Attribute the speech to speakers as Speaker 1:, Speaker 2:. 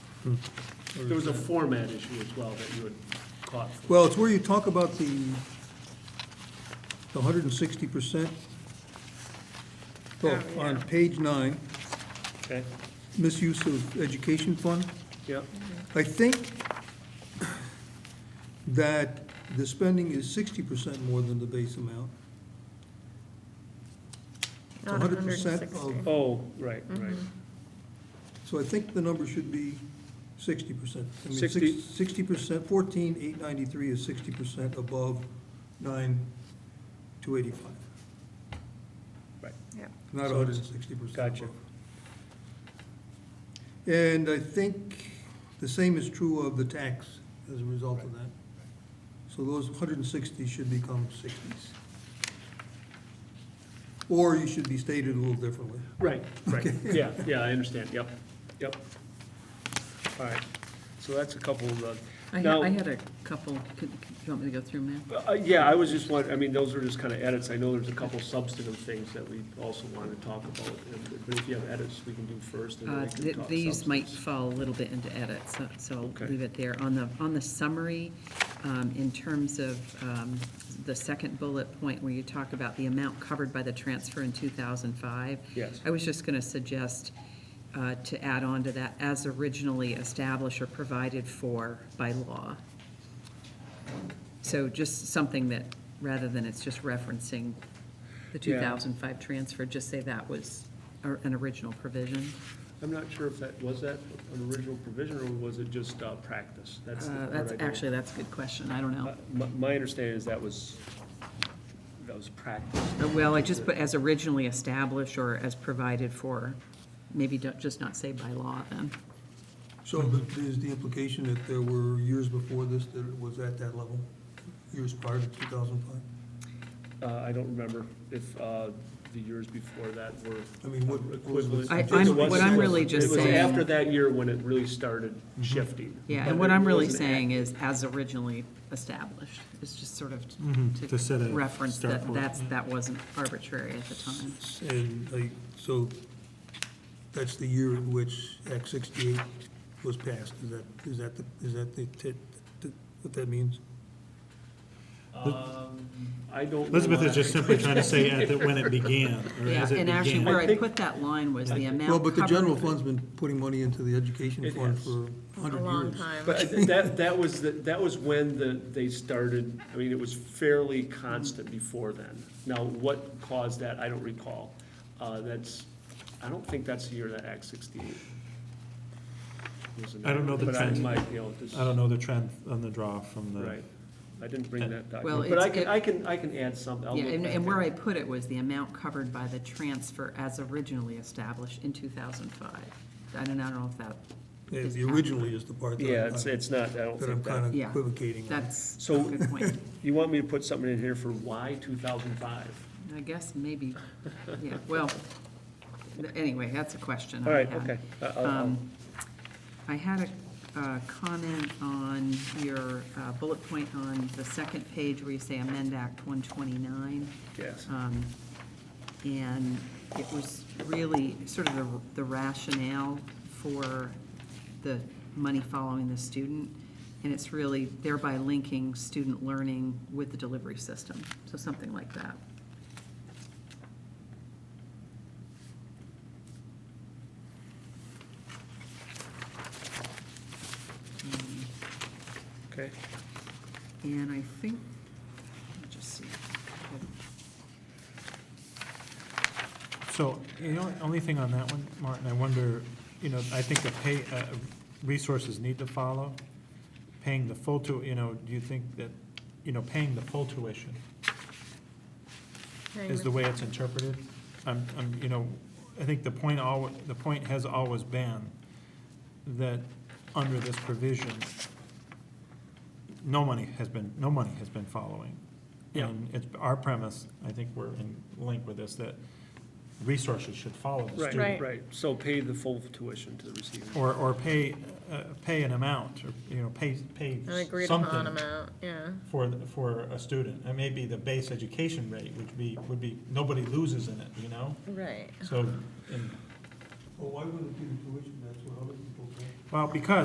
Speaker 1: There was a format issue as well that you had caught.
Speaker 2: Well, it's where you talk about the, the hundred and sixty percent.
Speaker 3: Oh,
Speaker 2: On
Speaker 3: yeah.
Speaker 2: page nine,
Speaker 1: Okay,
Speaker 2: misuse of education fund.
Speaker 1: yeah,
Speaker 2: I think that the spending is sixty percent more than the base amount.
Speaker 3: Not
Speaker 2: 100%
Speaker 3: 160.
Speaker 2: of-
Speaker 1: oh, right,
Speaker 4: Mm-hmm.
Speaker 1: right.
Speaker 2: So I think the number should be sixty percent.
Speaker 1: Sixty-
Speaker 2: Sixty percent, fourteen, eight ninety-three is sixty percent above nine, two eighty-five,
Speaker 3: Yeah.
Speaker 2: not
Speaker 1: So
Speaker 2: hundred
Speaker 1: it's-
Speaker 2: and sixty percent.
Speaker 1: gotcha.
Speaker 2: And I think the same is true of the tax as a result of that. So those hundred and sixty should become sixties. Or you should be stated a little differently.
Speaker 1: Right, right, yeah, yeah, I understand, yep, yep. All right, so that's a couple of the.
Speaker 4: I had,
Speaker 1: Now-
Speaker 4: I had a couple, could, you want me to go through them now?
Speaker 1: Uh, Yeah, I was just wondering, I mean, those are just kind of edits. I know there's a couple substantive things that we also want to talk about, and- but if you have edits, we can do first. and then we
Speaker 4: Uh,
Speaker 1: can
Speaker 4: th-
Speaker 1: talk
Speaker 4: These might
Speaker 1: substance.
Speaker 4: fall a little bit into edit, so, so
Speaker 1: Okay.
Speaker 4: I'll leave it there. On the, on the summary, um, in terms of, um, the second bullet point where you talk about the amount covered by the transfer in two thousand five.
Speaker 1: Yes.
Speaker 4: I was just gonna suggest, uh, to add on to that, as originally established or provided for by law. So just something that, rather than it's just referencing the
Speaker 1: Yeah.
Speaker 4: 2005 transfer, just say that was or- an original provision.
Speaker 1: I'm not sure if that, was that an original provision, or was it just uh, practice? That's the
Speaker 4: Uh,
Speaker 1: part
Speaker 4: That's,
Speaker 1: I don't-
Speaker 4: actually, that's a good question, I don't
Speaker 1: Uh,
Speaker 4: know.
Speaker 1: My, my understanding is that was, that was practice.
Speaker 4: Uh, Well, I just put as originally established or as provided for, maybe don't- just not say by law then.
Speaker 2: So the- is the implication that there were years before this that it was at that level, years prior to 2005?
Speaker 1: Uh, I don't remember if uh, the years before that were
Speaker 2: I mean, what- what was the-
Speaker 1: equivalent.
Speaker 4: I- I'm- what I'm really just
Speaker 1: It was
Speaker 4: saying-
Speaker 1: after that year when it really started
Speaker 2: Mm-hmm.
Speaker 1: shifting.
Speaker 4: Yeah,
Speaker 1: But
Speaker 4: and what I'm
Speaker 1: it
Speaker 4: really
Speaker 1: wasn't
Speaker 4: saying is as originally established, it's just sort of
Speaker 5: Mm-hmm, to set
Speaker 4: to
Speaker 5: a
Speaker 4: reference
Speaker 5: start
Speaker 4: that
Speaker 5: point,
Speaker 4: that's, that wasn't arbitrary at the time.
Speaker 2: And I, so that's the year in which Act 68 was passed, is that, is that, the is that the, tit- tit- what that means?
Speaker 1: Um, I don't. know
Speaker 5: Elizabeth
Speaker 1: why.
Speaker 5: is just simply trying to say at the, when it began, or
Speaker 4: Yeah,
Speaker 5: as it
Speaker 4: and actually
Speaker 5: began.
Speaker 4: where
Speaker 1: I
Speaker 4: I
Speaker 1: think-
Speaker 4: put that line was the amount
Speaker 2: Well, but the
Speaker 4: covered-
Speaker 2: general fund's been putting money into the education
Speaker 1: It
Speaker 2: fund
Speaker 1: has.
Speaker 2: for 100
Speaker 3: A
Speaker 2: years.
Speaker 3: long time.
Speaker 1: But that, that was, the- that was when the, they started, I mean, it was fairly constant before then. Now, what caused that, I don't recall. Uh, That's, I don't think that's the year that Act 68 was enacted.
Speaker 5: I don't know the
Speaker 1: But I
Speaker 5: trend.
Speaker 1: might, you know, this,
Speaker 5: I don't know the trend on the draw from the.
Speaker 1: right. I didn't bring that
Speaker 4: Well,
Speaker 1: document, but I
Speaker 4: it's-
Speaker 1: can, I can, I can add something. I'll
Speaker 4: Yeah,
Speaker 1: look
Speaker 4: and,
Speaker 1: back
Speaker 4: and
Speaker 1: at
Speaker 4: where
Speaker 1: it.
Speaker 4: I put it was the amount covered by the transfer as originally established in two thousand five. I don't, I don't know if that,
Speaker 2: Yeah, The originally is the part that I'm-
Speaker 1: Yeah, it's, it's not, I don't
Speaker 2: that I'm
Speaker 1: think that.
Speaker 2: kind of
Speaker 4: Yeah.
Speaker 2: equivocating on.
Speaker 4: that's a
Speaker 1: So-
Speaker 4: good point.
Speaker 1: You want me to put something in here for why 2005?
Speaker 4: I guess maybe, yeah, well, anyway, that's a question. I
Speaker 1: All right,
Speaker 4: had.
Speaker 1: okay. I- I'll- I'll-
Speaker 4: Um, I had a uh, comment on your uh, bullet point on the second page where you say amend Act one twenty-nine.
Speaker 1: Yes.
Speaker 4: Um, And it was really sort of the- the rationale for the money following the student. And it's really thereby linking student learning with the delivery system, so something like that.
Speaker 1: Okay.
Speaker 4: And I think, let me just see.
Speaker 5: So, you know, only thing on that one, Martin, I wonder, you know, I think the pay, uh, resources need to follow. Paying the full tu, you know, do you think that, you know, paying the full tuition
Speaker 3: Hang
Speaker 5: is
Speaker 3: with-
Speaker 5: the way it's interpreted? I'm, I'm, you know, I think the point al, the point has always been that under this provision, no money has been, no money has been following.
Speaker 1: Yeah.
Speaker 5: And it's our premise, I think we're in link with this, that resources should follow the student.
Speaker 1: Right,
Speaker 3: Right.
Speaker 1: right, so pay the full tuition to the receiver.
Speaker 5: Or, or pay, uh, pay an amount, or, you know, pay, pay
Speaker 3: An agreed upon
Speaker 5: something
Speaker 3: amount, yeah.
Speaker 5: for, the- for a student. It may be the base education rate, which be, would be, nobody loses in it, you know?
Speaker 3: Right.
Speaker 5: So, and,
Speaker 2: Well, why wouldn't it be the tuition, that's what other people pay?
Speaker 5: well, because